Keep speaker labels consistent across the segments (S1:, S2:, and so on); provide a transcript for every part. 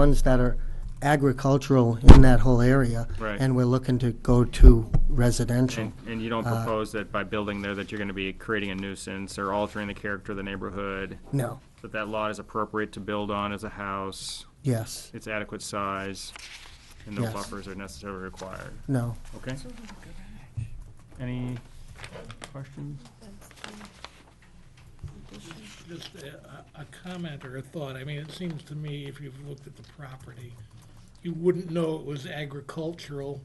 S1: ones that are agricultural in that whole area.
S2: Right.
S1: And we're looking to go to residential.
S2: And, and you don't propose that by building there that you're gonna be creating a nuisance or altering the character of the neighborhood?
S1: No,
S2: That that lot is appropriate to build on as a house,
S1: yes,
S2: it's adequate size, and no
S1: Yes.
S2: buffers are necessarily required,
S1: no.
S2: okay? Any questions?
S3: Just a, a- a comment or a thought, I mean, it seems to me, if you've looked at the property, you wouldn't know it was agricultural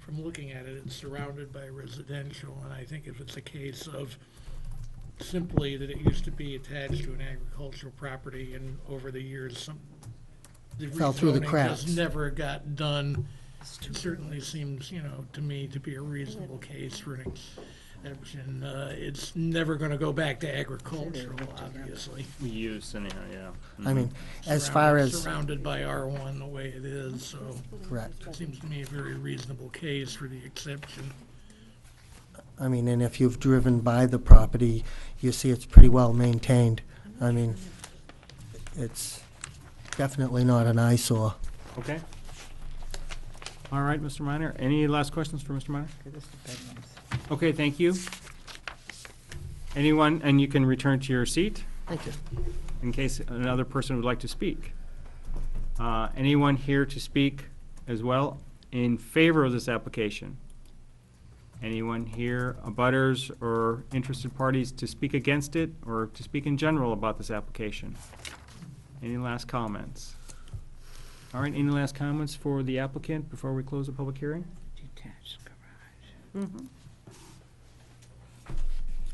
S3: from looking at it, it's surrounded by residential, and I think if it's a case of simply that it used to be attached to an agricultural property, and over the years, some, the
S1: Fell through the
S3: rezoning
S1: cracks.
S3: just never got done, it certainly seems, you know, to me to be a reasonable case for an exception. Uh, It's never gonna go back to agricultural, obviously.
S2: Use anyhow, yeah.
S1: I mean, as far
S3: Surrounded-
S1: as,
S3: Surrounded by R1 the way it is, so
S1: correct.
S3: it seems to me a very reasonable case for the exception.
S1: I mean, and if you've driven by the property, you see it's pretty well maintained. I mean, it's definitely not an eyesore.
S2: Okay. All right, Mr. Minor, any last questions for Mr. Minor? Okay, thank you. Anyone, and you can return to your seat
S1: Thank you.
S2: in case another person would like to speak. Uh, Anyone here to speak as well in favor of this application? Anyone here, abutters or interested parties to speak against it or to speak in general about this application? Any last comments? All right, any last comments for the applicant before we close the public hearing?
S4: Detached garage.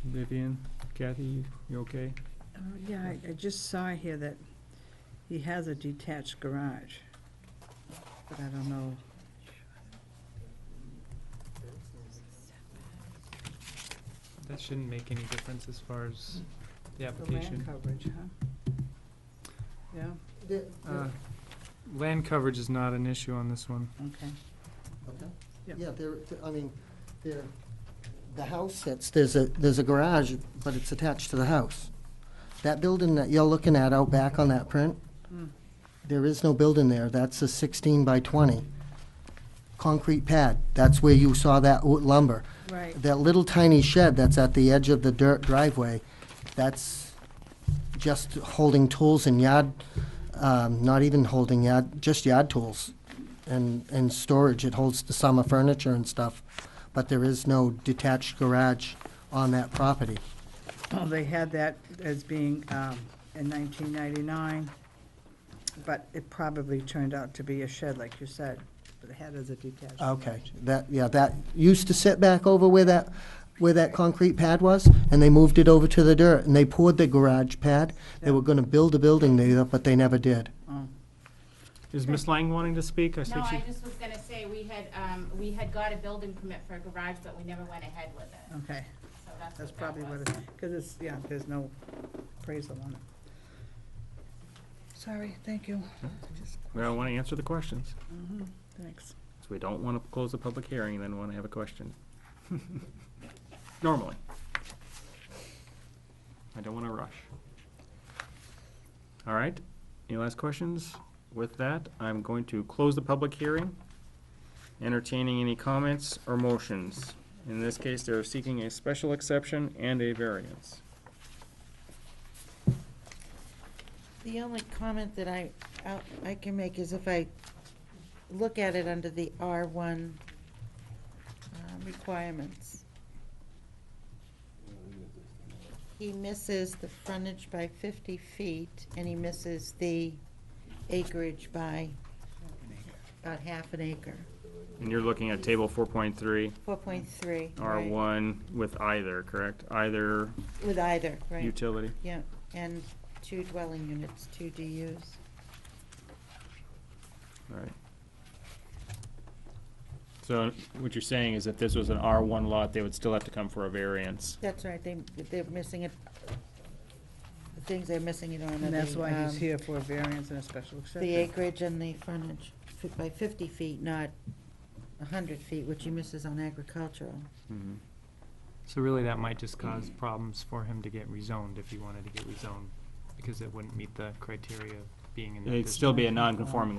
S2: Vivian, Kathy, you- you okay?
S4: Oh, Yeah, I, I just saw here that he has a detached garage, but I don't know.
S5: That shouldn't make any difference as far as the
S4: The land
S5: application.
S4: coverage, huh? Yeah,
S5: Uh, Land coverage is not an issue on this one.
S4: okay. Yeah.
S1: Yeah, there, I mean, there, the house sits, there's a, there's a garage, but it's attached to the house. That building that you're looking at out back on that print, there is no building there, that's a sixteen by twenty. Concrete pad, that's where you saw that wo- lumber.
S4: Right,
S1: That little tiny shed that's at the edge of the dirt driveway, that's just holding tools and yard, um, not even holding yard, just yard tools and, and storage. It holds the summer furniture and stuff, but there is no detached garage on that property.
S4: well, they had that as being, um, in nineteen ninety-nine, but it probably turned out to be a shed, like you said, but it had as a detached garage.
S1: Okay, that, yeah, that used to sit back over where that, where that concrete pad was, and they moved it over to the dirt, and they poured the garage pad. They were gonna build a building there, but they never did.
S4: oh,
S2: Is Ms. Lang wanting to speak? I see
S6: No,
S2: she-
S6: I just was gonna say, we had, um, we had got a building permit for a garage, but we never went ahead with it,
S4: Okay,
S6: so that's
S4: that's
S6: what that
S4: probably what
S6: was.
S4: it, because it's, yeah, there's no appraisal on it. Sorry, thank you. Just-
S2: Well, I want to answer the questions.
S4: Thanks.
S2: So we don't want to close the public hearing, and then want to have a question. Normally. I don't want to rush. All right, any last questions? With that, I'm going to close the public hearing, entertaining any comments or motions. In this case, they're seeking a special exception and a variance.
S7: The only comment that I, I- I can make is if I look at it under the R1 uh, requirements, he misses the frontage by 50 feet, and he misses the acreage by about half an acre,
S2: And you're looking at table four point three,
S7: 4.3.
S2: R
S7: right?
S2: one, with either, correct? Either
S7: With either, right,
S2: utility.
S7: yeah, and two dwelling units, two DUs.
S2: Right. So what you're saying is if this was an R1 lot, they would still have to come for a variance?
S7: That's right, they, they're missing it, the things they're missing it on are
S4: And that's
S7: the,
S4: why he's
S7: um,
S4: here for a variance and a special exception.
S7: The acreage and the frontage, fi- by fifty feet, not a hundred feet, which he misses on agricultural.
S5: So really, that might just cause problems for him to get rezoned if he wanted to get rezoned, because it wouldn't meet the criteria of being in that district.
S2: It'd still be a non-conforming